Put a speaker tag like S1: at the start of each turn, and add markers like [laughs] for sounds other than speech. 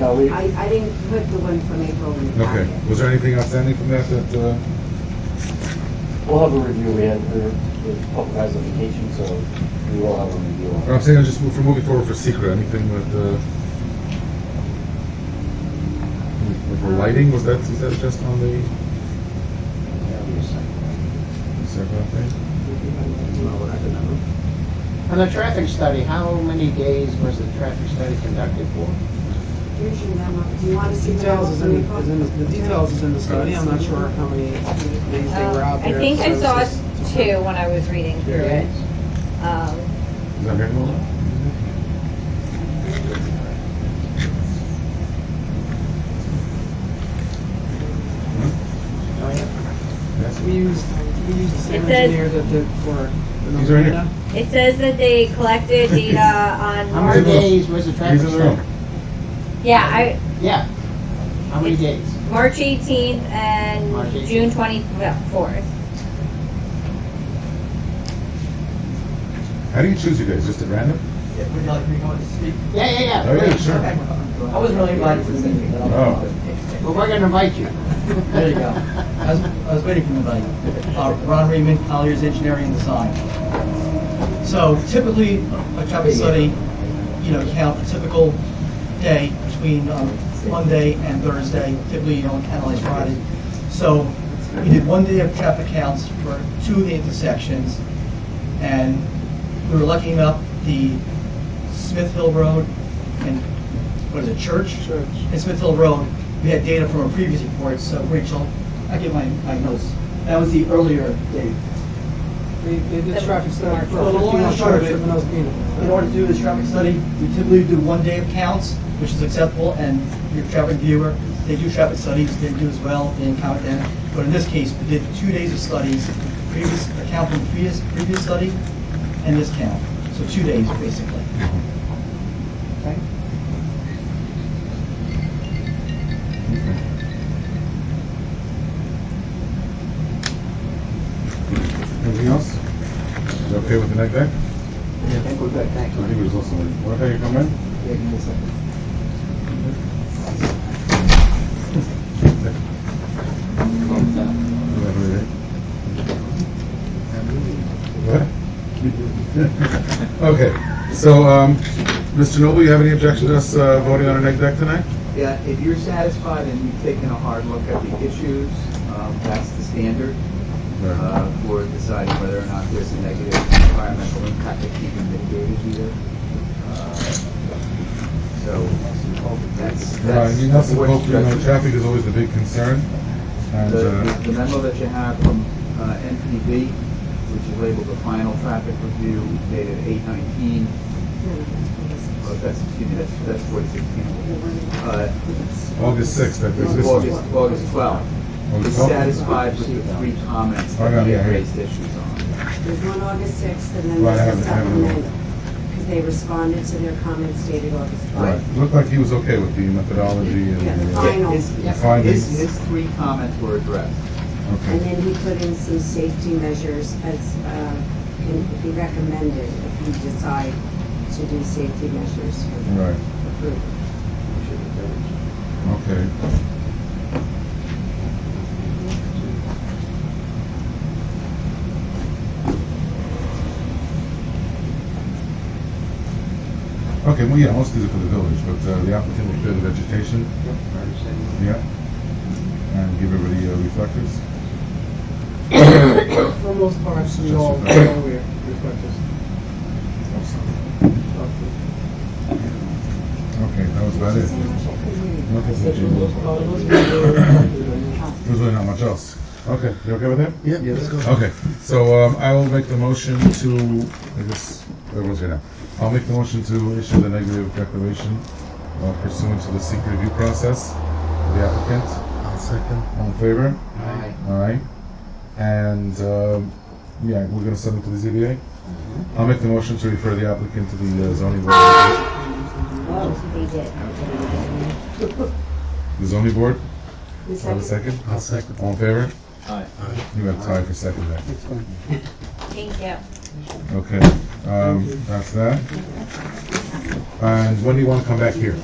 S1: No, we,
S2: I, I didn't put the one from April in the
S3: Okay,
S2: packet.
S3: was there anything outstanding from that that, uh,
S1: we'll have a review, we had, there were a couple guys on vacation, so we will have a review. on it.
S3: I'm saying, I just move- for moving forward for secret, anything with, uh, with the lighting, was that, is that just on the second thing?
S4: On the traffic study, how many days was the traffic study conducted for?
S2: Here's your memo. Do you want to see the memo
S5: Details is
S2: from
S5: in, is
S2: April?
S5: in, the details is in the study, Oh, I'm not sure how many days they were out
S6: Um, I
S5: there.
S6: think I
S5: so
S6: saw
S5: it's just-
S6: two when I was reading through it. Um,
S3: Is that right, Nola? Yes.
S5: We used, we used the same
S6: It says-
S5: engineer that did for the
S3: He's right here.
S5: Novena.
S6: It says that they
S4: [laughs]
S6: collected data on
S4: How many
S3: March-
S4: days was the traffic
S3: He's in the room.
S4: study?
S6: Yeah, I,
S4: Yeah. How many days?
S6: March 18th and
S4: March 18th.
S6: June 24th.
S3: How do you choose your days, just at random?
S7: Would you like me to go and speak?
S4: Yeah, yeah, yeah.
S3: Oh, yeah, sure.
S7: I was really invited to speak. but I'll-
S3: Oh.
S4: Well, we're gonna invite you. [laughs]
S7: There you go. I was, I was waiting for anybody. Uh, Ron Raymond, Colliers Engineering and Design. So typically, a traffic study, you know, count a typical day between um, Monday and Thursday. Typically, you don't analyze Friday. So we did one day of traffic counts for two of the intersections. And we were lucky enough, the Smith Hill Road and, what is it, Church?
S5: Church.
S7: And Smith Hill Road, we had data from a previous report, so Rachel, I give my, my notes. That was the earlier date.
S5: They, they did traffic study for
S7: Well, the long
S5: fifteen
S7: and
S5: on
S7: short of
S5: Church
S7: it-
S5: and Nosebino.
S7: In order to do this traffic study, we typically do one day of counts, which is acceptable, and your traffic viewer, they do traffic studies, they do as well, they count them. But in this case, we did two days of studies, previous, a count from previous, previous study, and this count. So two days, basically.
S3: Anything else? Is that okay with the neck deck?
S7: I think we're good,
S3: I
S7: thank
S3: think it was also, what about you come in? What? [laughs] Okay, so, um, Mr. Noble, you have any objection to us uh, voting on an egg deck tonight?
S8: Yeah, if you're satisfied and you've taken a hard look at the issues, um, that's the standard uh, for deciding whether or not there's a negative environmental impact that can be mitigated here. Uh, So that's,
S3: Uh,
S8: that's.
S3: You have to vote, you know,
S8: that's-
S3: traffic is always the big concern, and,
S8: The
S3: uh,
S8: the memo that you have from uh, NPD, which is labeled the final traffic review dated eight nineteen, oh, that's, excuse me, that's, that's forty-six Uh
S3: August sixth, that is this one.
S8: August, August twelfth.
S3: August
S8: is
S3: 12th?
S8: satisfied with the three comments
S3: I got
S8: that
S3: it,
S8: we
S3: Oh, yeah,
S8: have
S3: yeah.
S8: raised issues on.
S2: There's one August 6th and then
S3: Right, I
S2: there's a
S3: have it, I have it.
S2: supplemental. Because they responded to their comments dated August 12th.
S3: Right, looked like he was okay with the methodology and
S2: Yeah.
S3: uh,
S2: Final.
S8: His-
S3: the findings.
S8: His, his three comments were addressed.
S2: And
S3: Okay,
S2: then he put in some safety measures as, uh, can be recommended if you decide to do safety measures for
S3: right,
S2: approval.
S3: okay. Okay, well, yeah, most of these are for the village, but uh, the applicant will clear the vegetation. Yeah. And give everybody uh, reflectors.
S5: For the most part, we all, we all wear reflectors.
S3: Okay, that was about it. Nothing
S5: Except for
S3: to
S5: those,
S3: do.
S5: uh, those people who are-
S3: There's really not much else. Okay, you okay with that? Yeah. Okay, so um, I will make the motion to, I guess, everyone's here now. I'll make the motion to issue the negative declaration uh, pursuant to the secret review process of the applicant. I'll second. All in favor? Aye. All right. And, um, yeah, we're gonna send it to the ZBA? I'll make the motion to refer the applicant to the uh, zoning board.
S2: Oh,
S6: They did.
S3: The zoning board?
S2: The
S3: Have a
S2: second-
S3: second? I'll second. All in favor? Aye. You have tied for second there.
S6: Thank you.
S3: Okay, um, that's that. And when do you want to come back here?